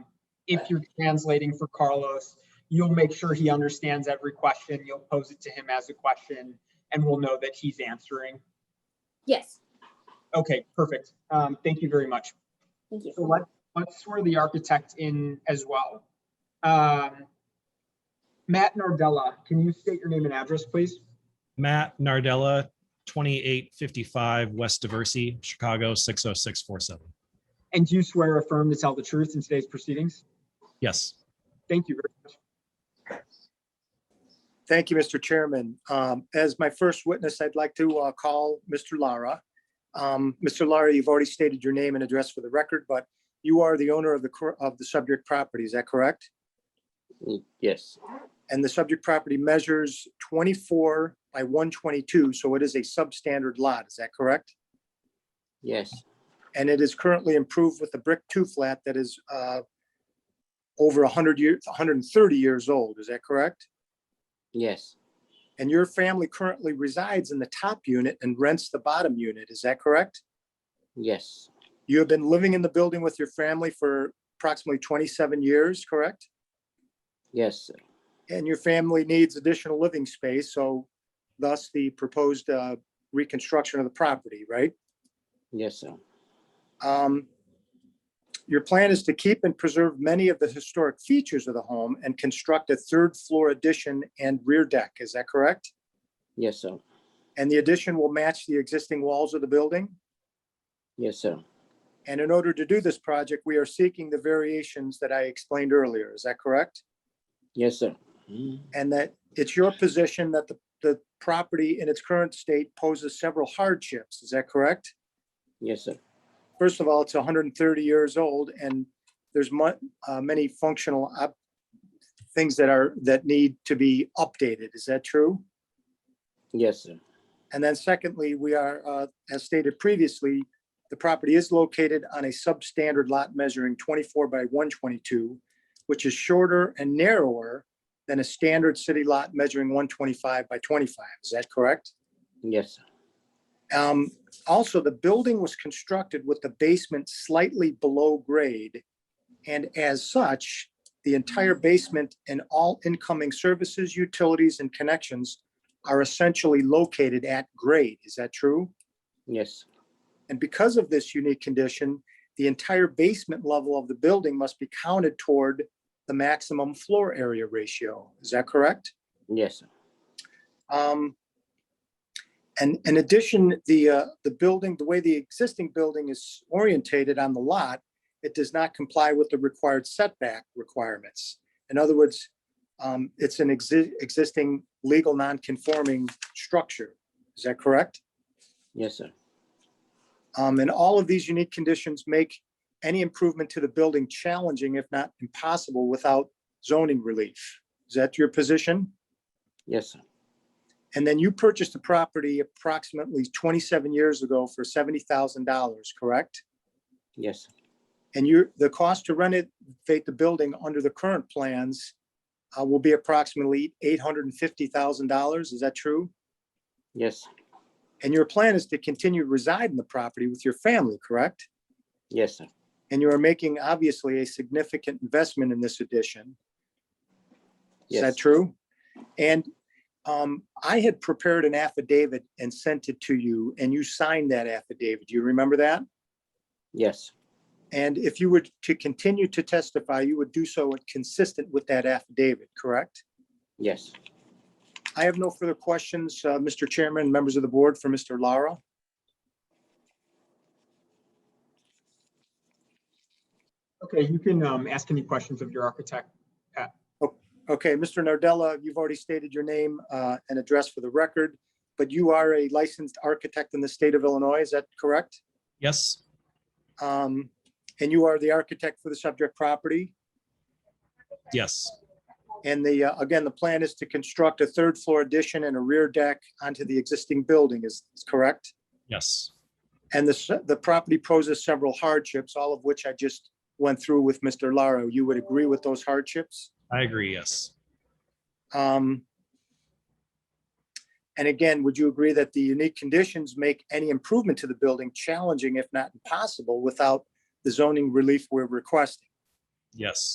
if you're translating for Carlos, you'll make sure he understands every question. You'll pose it to him as a question and we'll know that he's answering. Yes, Okay, perfect. Um, thank you very much. thank you. So let, let's throw the architect in as well. Um, Matt Nardella, can you state your name and address, please? Matt Nardella, 2855 West Diversey, Chicago, 60647. And do you swear or affirm to tell the truth in today's proceedings? Yes, Thank you very much. Thank you, Mr. Chairman. Um, As my first witness, I'd like to uh, call Mr. Lara. Um, Mr. Lara, you've already stated your name and address for the record, but you are the owner of the, cor- of the subject property, is that correct? Mm, Yes, And the subject property measures 24 by 122, so it is a substandard lot, is that correct? yes, And it is currently improved with a brick two-flat that is uh, over 100 years, 130 years old, is that correct? yes, And your family currently resides in the top unit and rents the bottom unit, is that correct? yes, You have been living in the building with your family for approximately 27 years, correct? yes, sir. And your family needs additional living space, so thus the proposed uh, reconstruction of the property, right? yes, sir. Um, Your plan is to keep and preserve many of the historic features of the home and construct a third floor addition and rear deck, is that correct? yes, sir. And the addition will match the existing walls of the building? yes, sir. And in order to do this project, we are seeking the variations that I explained earlier. Is that correct? yes, sir. Mm, And that it's your position that the, the property in its current state poses several hardships. Is that correct? yes, sir. First of all, it's 130 years old and there's mu- uh, many functional up, things that are, that need to be updated. Is that true? yes, sir. And then secondly, we are, uh, as stated previously, the property is located on a substandard lot measuring 24 by 122, which is shorter and narrower than a standard city lot measuring 125 by 25. Is that correct? yes, sir. Um, Also, the building was constructed with the basement slightly below grade. And as such, the entire basement and all incoming services, utilities, and connections are essentially located at grade. Is that true? yes, And because of this unique condition, the entire basement level of the building must be counted toward the maximum floor area ratio. Is that correct? yes, sir. Um, And in addition, the, uh, the building, the way the existing building is orientated on the lot, it does not comply with the required setback requirements. In other words, um, it's an exi- existing legal non-conforming structure. Is that correct? yes, sir. Um, and all of these unique conditions make any improvement to the building challenging, if not impossible, without zoning relief. Is that your position? yes, sir. And then you purchased the property approximately twenty-seven years ago for seventy thousand dollars, correct? yes, sir. And your, the cost to renovate the building under the current plans uh, will be approximately eight hundred and fifty thousand dollars. Is that true? yes, sir. And your plan is to continue to reside in the property with your family, correct? yes, sir. And you are making obviously a significant investment in this addition. Is yes, that true? And um, I had prepared an affidavit and sent it to you and you signed that affidavit. Do you remember that? yes, sir. And if you were to continue to testify, you would do so consistent with that affidavit, correct? yes, sir. I have no further questions, uh, Mr. Chairman, members of the board for Mr. Lara. Okay, you can um, ask any questions of your architect. Okay, Mr. Nardella, you've already stated your name uh, and address for the record, but you are a licensed architect in the state of Illinois, is that correct? yes, Um, And you are the architect for the subject property? yes, And the, uh, again, the plan is to construct a third floor addition and a rear deck onto the existing building, is is correct? yes, And the, s- the property poses several hardships, all of which I just went through with Mr. Laro. You would agree with those hardships? I agree, yes, Um, And again, would you agree that the unique conditions make any improvement to the building challenging, if not impossible, without the zoning relief we're requesting? yes.